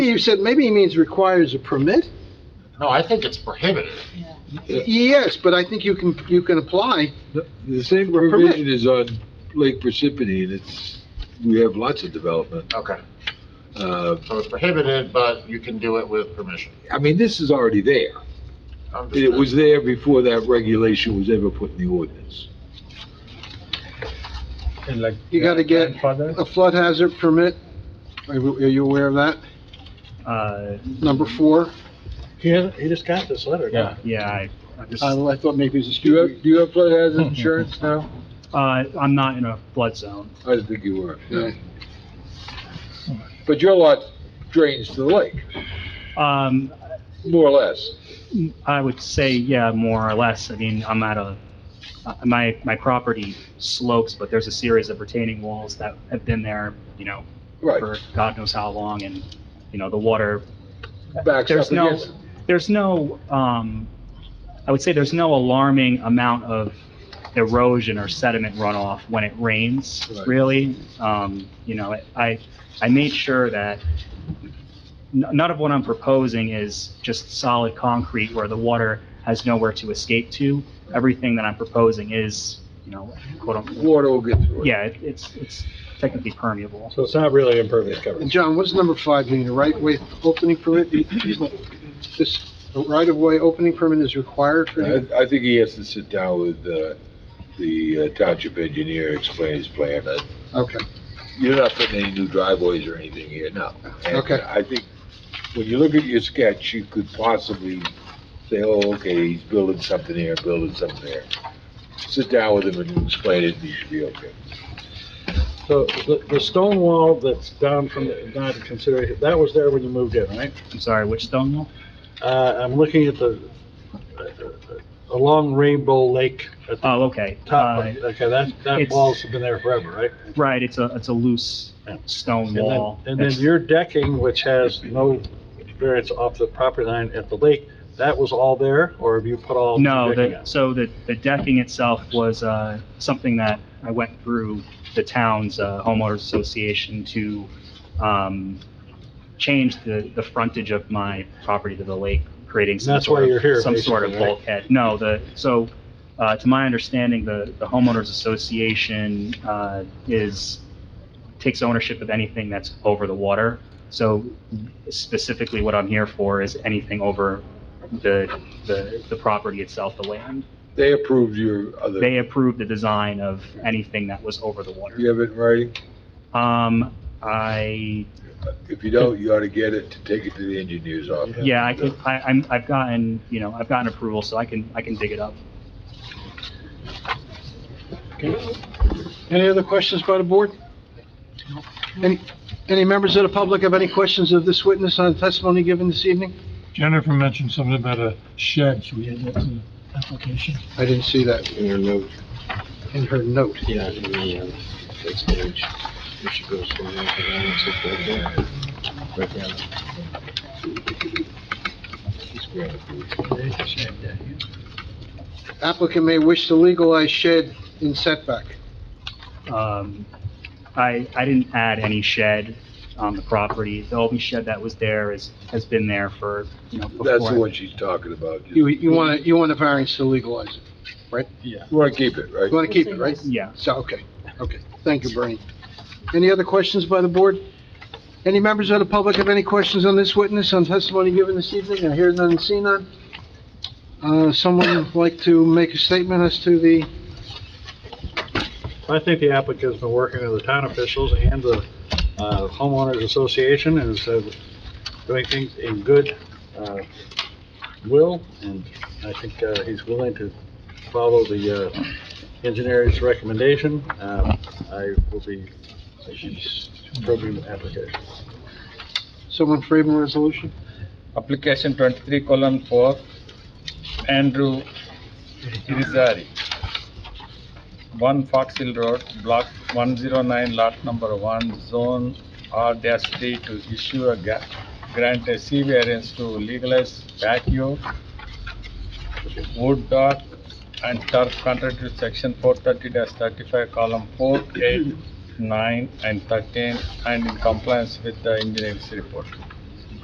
You said maybe he means requires a permit? No, I think it's prohibited. Yes, but I think you can, you can apply. The- The same provision is on Lake Parsippany, and it's, we have lots of development. Okay, Uh, so it's prohibited, but you can do it with permission. I mean, this is already there. Understood. It was there before that regulation was ever put in the ordinance. And like. You gotta get- grandfather, A flood hazard permit, are you are you aware of that? Uh, Number four? He, he just got this letter. yeah, yeah, I, I just, uh, I I thought maybe it was a Do you student. have, do you have flood hazard insurance now? uh, I'm not in a flood zone. I didn't think you were. Yeah. But your lot drains to the lake, Um, more or less. I would say, yeah, more or less. I mean, I'm at a, uh, my, my property slopes, but there's a series of retaining walls that have been there, you know, for Right, God knows how long, and, you know, the water, backs up there's no, against. there's no, um, I would say there's no alarming amount of erosion or sediment runoff when it rains, Right. really. Um, you know, I, I made sure that n- none of what I'm proposing is just solid concrete where the water has nowhere to escape to. Everything that I'm proposing is, you know, quote unquote, Water will get through it. yeah, it- it's, it's technically permeable. So it's not really impervious And coverage. John, what's number five mean, a right-of-way opening permit? This right-of-way opening permit is required for you? I, I think he has to sit down with, uh, the uh, township engineer, explain his plan. Uh, Okay, You're not putting any new driveways or anything here, no. And Okay. I think, when you look at your sketch, you could possibly say, oh, okay, he's building something here, building something there. Sit down with him and explain it, and you should be okay. So the, the stone wall that's down from, the not considered, that was there when you moved in, right? I'm sorry, which stone wall? Uh, I'm looking at the, uh, along Rainbow Lake at the Oh, okay. top. Uh, of- Okay, that, that it's- wall's been there forever, right? Right, it's a, it's a loose uh, stone And then- wall. And then It's- your decking, which has no variance off the property line at the lake, that was all there, or have you put all? new No, decking the, on? so the, the decking itself was, uh, something that I went through the town's uh, homeowners association to, um, change the, the frontage of my property to the lake, creating some That's why sort of- you're here, Some sort of basically, right? bulkhead. No, the, so, uh, to my understanding, the, the homeowners association, uh, is, takes ownership of anything that's over the water. So specifically what I'm here for is anything over the, the, the property itself, the land. They approved your other, They approved the design of anything that was over the water. you have it right? Um, I, If you don't, you ought to get it to take it to the engineer's office. yeah, I could, I, I'm, I've gotten, you know, I've gotten approval, so I can, I can dig it up. Any other questions by the board? Any, any members of the public have any questions of this witness on testimony given this evening? Jennifer mentioned something about a shed, should we add that to the application? I didn't see that in her note, in her note. yeah, in the, uh, next page, where she goes from there to there, it's like right there. Right there. Applicant may wish to legalize shed in setback. Um, I, I didn't add any shed on the property. The only shed that was there is, has been there for, you know, before. That's the one she's talking about. You, You you want to, you want a variance to legalize it. want to keep it, right? You want to keep it, right? Yeah. So, okay, okay. Thank you, Bernie. Any other questions by the board? Any members of the public have any questions on this witness on testimony given this evening? I hear none and see none. Uh, someone like to make a statement as to the, I think the applicant's been working with the town officials and the uh, homeowners association and is uh, doing things in good uh, will, and I think uh, he's willing to follow the uh, engineer's recommendation. Um, I will be approving the application. someone framing resolution? application twenty-three column four, Andrew Irizarry. One Fox Hill Road, block one zero nine, lot number one, zone R dash D to issue a ga- grant a C variance to legalize patio, wood dock and turf contrary to section four thirty thirty-five, column four, eight, nine and thirteen and in compliance with the engineer's report.